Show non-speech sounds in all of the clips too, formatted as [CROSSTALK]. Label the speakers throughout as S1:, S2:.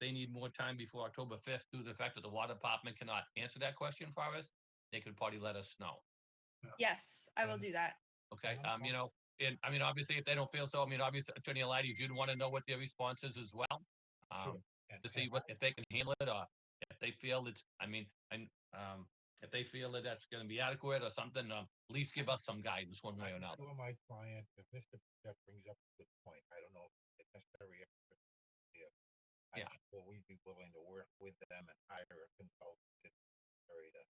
S1: they need more time before October fifth due to the fact that the water department cannot answer that question for us, they could probably let us know.
S2: Yes, I will
S1: Um
S3: And-
S2: do that.
S1: Okay,
S3: Yeah,
S1: um, you know, and I mean, obviously, if they don't feel so, I mean, obviously, Attorney Alighty, you'd want to know what their response is as well. Um,
S3: And-
S1: to see
S3: and
S1: what, if they can handle it or if they feel that, I mean, and, um, if they feel that that's gonna be adequate or something, um, at least give us some guidance one way or
S3: I
S1: another.
S3: told my client, if Mr. Jeff brings up a good point, I don't know if it's necessary. if it's here. I
S1: Yeah.
S3: asked, Will we be willing to work with them and hire a consultant? if necessary to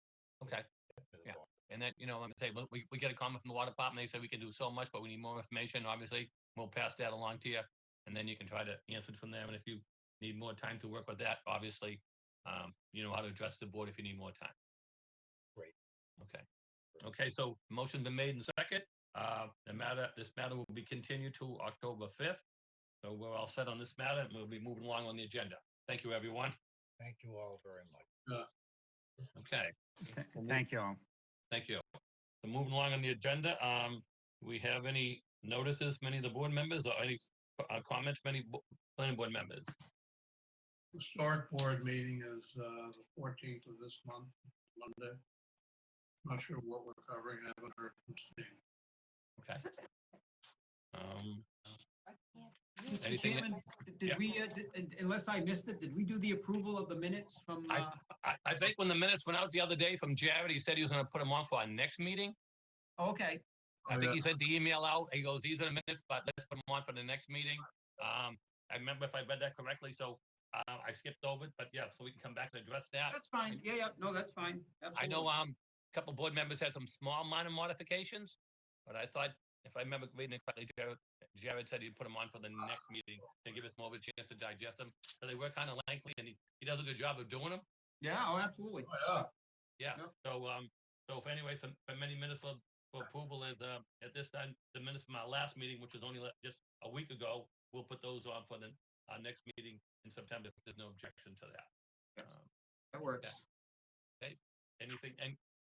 S1: Okay,
S3: get to the
S1: Yeah.
S3: bottom?
S1: and then, you know, let me say, we, we get a comment from the water department, they say we can do so much, but we need more information, obviously, we'll pass that along to you. And then you can try to answer it from there, and if you need more time to work with that, obviously, um, you know how to address the board if you need more time.
S3: Great.
S1: Okay, okay, so motion been made and second, uh, the matter, this matter will be continued to October fifth. So we're all set on this matter, and we'll be moving along on the agenda. Thank you, everyone.
S3: Thank you all very much.
S1: Okay,
S4: Th- Thank you all.
S1: thank you. So moving along on the agenda, um, we have any notices, many of the board members, or any uh, comments, many bo- planning board members?
S5: Historic Board meeting is uh, the fourteenth of this month, Monday. Not sure what we're covering, I haven't heard from Steve.
S1: Okay. Um,
S6: Mr.
S1: Anything that-
S6: Chairman,
S1: Yeah.
S6: did we, uh, d- un- unless I missed it, did we do the approval of the minutes from,
S1: I-
S6: uh,
S1: I, I think when the minutes went out the other day from Jared, he said he was gonna put them on for our next meeting.
S6: oh, okay,
S1: I
S5: Oh,
S1: think he sent the email out. He goes, these are the minutes, but let's put them on for the next meeting. Um, I remember if I read that correctly, so, uh, I skipped over it, but yeah, so we can come back and address that.
S6: that's fine. Yeah, yeah, no, that's fine.
S1: I know,
S6: absolutely.
S1: um, a couple board members had some small minor modifications, but I thought, if I remember reading it correctly, Jared, Jared said he'd put them on for the next meeting to give us more of a chance to digest them. So they were kind of lengthy and he, he does a good job of doing them.
S6: Yeah, oh, absolutely.
S5: Yeah,
S1: Yeah,
S6: Yep.
S1: so, um, so if anyway, some, for many minutes of for approval is, uh, at this time, the minutes from our last meeting, which was only le- just a week ago, we'll put those on for the, our next meeting in September, if there's no objection to that.
S6: Yes.
S1: Um,
S6: That works.
S1: Anything, and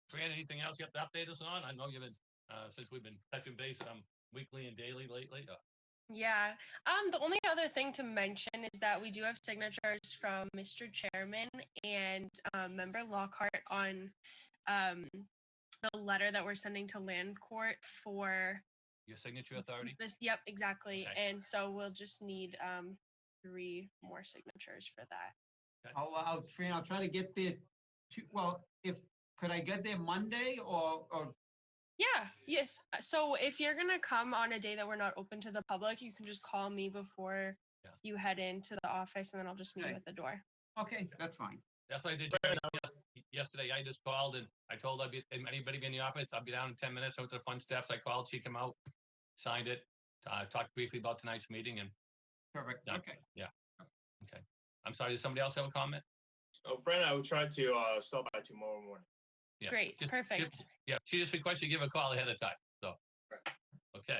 S1: Fran, anything else you have to update us on? I know you've been, uh, since we've been touching base, um, weekly and daily lately, uh,
S2: Yeah. Um, the only other thing to mention is that we do have signatures from Mr. Chairman and um, member Lockhart on um, the letter that we're sending to land court for
S1: your
S2: Mm-hmm.
S1: signature authority.
S2: this. Yep, exactly.
S1: Okay.
S2: And so we'll just need um, three more signatures for that.
S6: I'll, uh, I'll, Fran, I'll try to get there to, well, if, could I get there Monday or, or,
S2: Yeah, yes. Uh, So if you're gonna come on a day that we're not open to the public, you can just call me before
S1: Yeah.
S2: you head into the office and then I'll just meet you
S6: Okay.
S2: at the door.
S6: okay, that's fine.
S1: That's what I did yes- yesterday. I just called and I told I'd be, and anybody be in the office, I'll be down in ten minutes. I went to the front steps. I called, she came out, signed it. I talked briefly about tonight's meeting and
S6: Perfect,
S1: Done.
S6: okay.
S1: I'm sorry, does somebody else have a comment?
S7: Oh, friend, I will try to uh, stop by tomorrow morning.
S1: Yeah,
S2: Great,
S1: just- just-
S2: perfect.
S1: Yeah, she just requested you give a call ahead of time, so. Okay,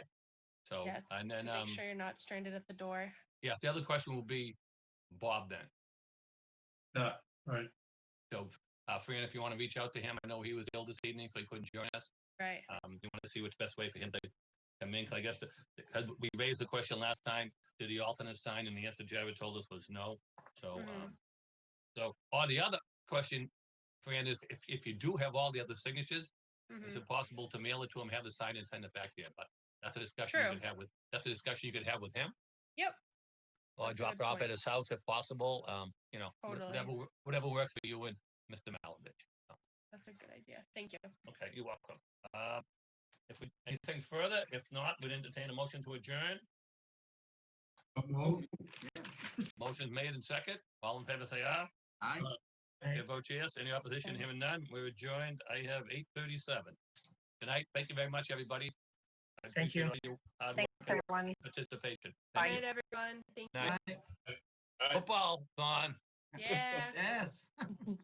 S1: so,
S2: Yeah,
S1: and
S2: To
S1: then,
S2: make
S1: um,
S2: sure you're not stranded at the door.
S1: yeah, the other question will be Bob then.
S5: right.
S1: So, uh, Fran, if you want to reach out to him, I know he was ill this evening, so he couldn't join us.
S2: Right.
S1: Um, you want to see what's best way for him to come in, 'Cause I guess, the- because we raised the question last time, did the alternate sign, and the answer Jared told us was no, so, um,
S2: Mhm.
S1: so, or the other question, Fran, is if, if you do have all the other signatures, is
S2: Mhm.
S1: it possible to mail it to him, have the sign and send it back to him? But that's a discussion
S2: True.
S1: you could have with, that's a discussion you could have with him.
S2: Yep.
S1: Or
S2: That's a
S1: drop
S2: good
S1: it off at
S2: point.
S1: his house if possible, um, you know, wha-
S2: Totally.
S1: whatever, wo- whatever works for you and Mr. Malovich.
S2: That's a good idea. Thank you.
S1: Okay, you're welcome. Uh, if we, anything further, if not, we'd entertain a motion to adjourn.
S5: So moved.
S1: Motion made and second. All in favor, say aye.
S6: I,
S1: Chair votes yes. Any opposition? Hearing none. We're adjourned. I have eight thirty-seven. Good night. Thank you very much, everybody. I
S8: Thank you.
S1: appreciate all your hard
S8: Thanks,
S1: work and
S8: everyone.
S1: Participation.
S2: Good
S1: Thank
S2: night, everyone. Thank
S1: Night.
S2: you.
S6: I-
S1: [LAUGHS] you. Football, gone.
S2: Yeah.
S6: yes.